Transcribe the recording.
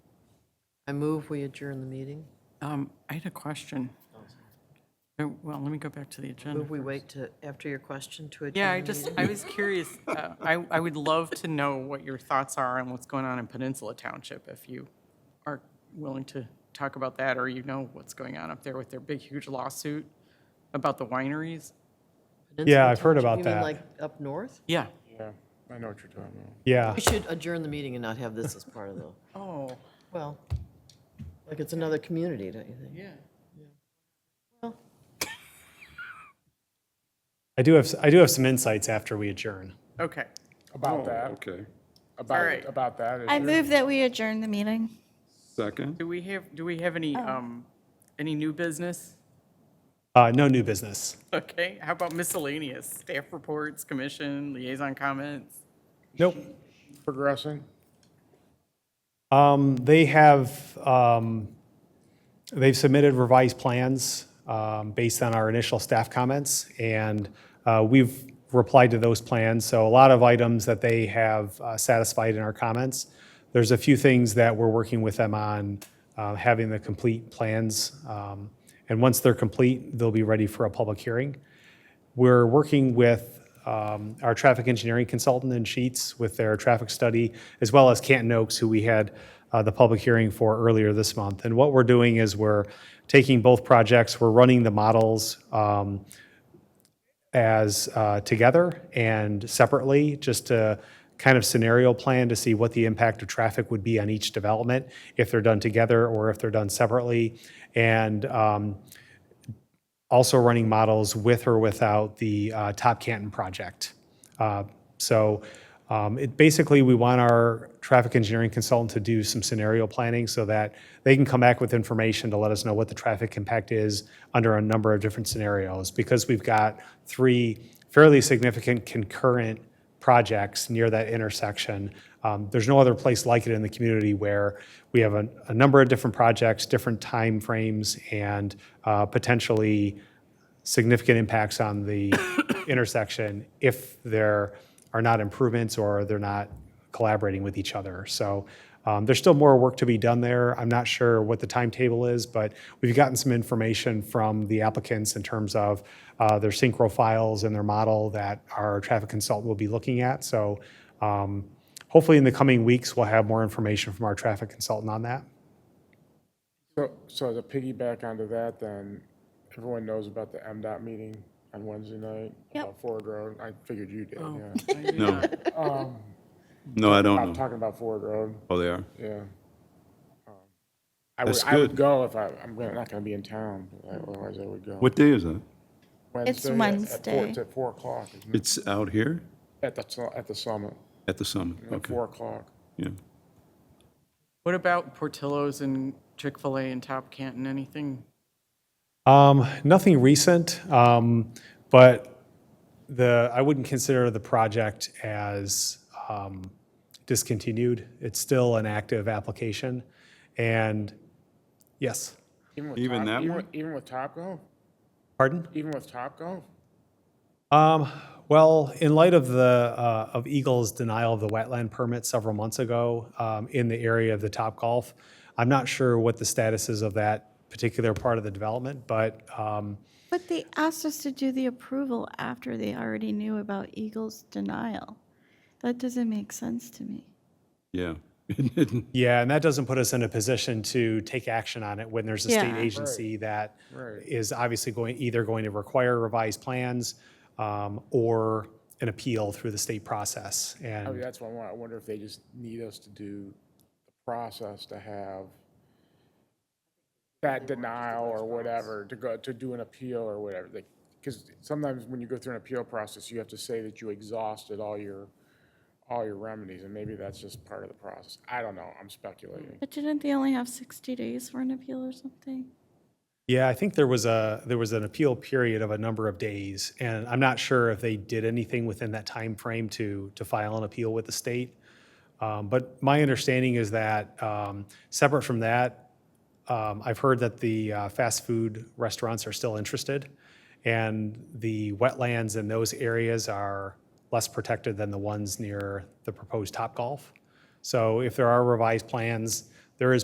I move we adjourn the meeting. Um, I had a question. Oh, Well, let me go back to the agenda. Move we wait to, after your question to adjourn. Yeah, I the just, meeting. I was curious. uh, I, I would love to know what your thoughts are on what's going on in Peninsula Township, if you are willing to talk about that, or you know what's going on up there with their big, huge lawsuit about the wineries. Peninsula I've heard Township, about You mean that. like up north? Yeah. Yeah, I know what you're talking about. Yeah, We should adjourn the meeting and not have this as part of the, Oh, well, like it's another community, don't you think? yeah. I do have, I do have some insights after we adjourn. Okay. About that, Okay. right. about, about that. is I there- move that we adjourn the meeting. Second? Do we have, do we have any, um, any new business? Uh, no new business. Okay, how about miscellaneous? Staff reports, commission, liaison comments? Nope. Progressing. Um, they have, um, they've submitted revised plans, um, based on our initial staff comments, and, uh, we've replied to those plans, so a lot of items that they have uh, satisfied in our comments. There's a few things that we're working with them on, uh, having the complete plans, um, and once they're complete, they'll be ready for a public hearing. We're working with um, our traffic engineering consultant in Sheets with their traffic study, as well as Canton Oaks, who we had uh, the public hearing for earlier this month. And what we're doing is we're taking both projects, we're running the models um, as uh, together and separately, just to kind of scenario plan to see what the impact of traffic would be on each development, if they're done together or if they're done separately. And um, also running models with or without the uh, Top Canton project. Uh, So um, it, basically, we want our traffic engineering consultant to do some scenario planning so that they can come back with information to let us know what the traffic impact is under a number of different scenarios. Because we've got three fairly significant concurrent projects near that intersection. Um, There's no other place like it in the community where we have a, a number of different projects, different timeframes, and uh, potentially significant impacts on the intersection if there are not improvements or they're not collaborating with each other. So um, there's still more work to be done there. I'm not sure what the timetable is, but we've gotten some information from the applicants in terms of uh, their synchro files and their model that our traffic consultant will be looking at. So um, hopefully in the coming weeks, we'll have more information from our traffic consultant on that. So, so to piggyback onto that, then, everyone knows about the MDOT meeting on Wednesday night? Yep. Oh. About Ford Road, I figured you did, yeah. No. No, I I'm don't know. talking about Ford Road, Oh, they are? yeah. Um, I would, That's I would good. go if I, I'm gonna- not gonna be in town, but otherwise I would go. What day is that? It's at- at four- Wednesday. It's at four o'clock, isn't it? It's out here at the, su- at the summit, at the summit? at Okay, four o'clock. yeah. What about Portillo's and Chick-fil-A and Top Canton, anything? Um, nothing recent, um, but the, I wouldn't consider the project as, um, discontinued. It's still an active application. And, yes, with Even Top- that even one? with- Even with Top Golf? pardon? Even with Top Golf? Um, well, in light of the, uh, of Eagle's denial of the wetland permit several months ago, um, in the area of the Top Golf, I'm not sure what the status is of that particular part of the development, but, um, But they asked us to do the approval after they already knew about Eagle's denial. That doesn't make sense to me. Yeah. Yeah, and that doesn't put us in a position to take action on it when there's a state Yeah. agency that Right. is obviously going, either going to require revised plans um, or an appeal through the state process. I mean, And that's why I wa- I wonder if they just need us to do the process to have that denial or whatever, to go, to do an appeal or whatever. Because sometimes when you go through an appeal process, you have to say that you exhausted all your, all your remedies, and maybe that's just part of the process. I don't know, I'm speculating. But didn't they only have 60 days for an appeal or something? yeah, I think there was a, there was an appeal period of a number of days. And I'm not sure if they did anything within that time frame to, to file an appeal with the state. Um, But my understanding is that, um, separate from that, um, I've heard that the uh, fast food restaurants are still interested, and the wetlands in those areas are less protected than the ones near the proposed Top Golf. So if there are revised plans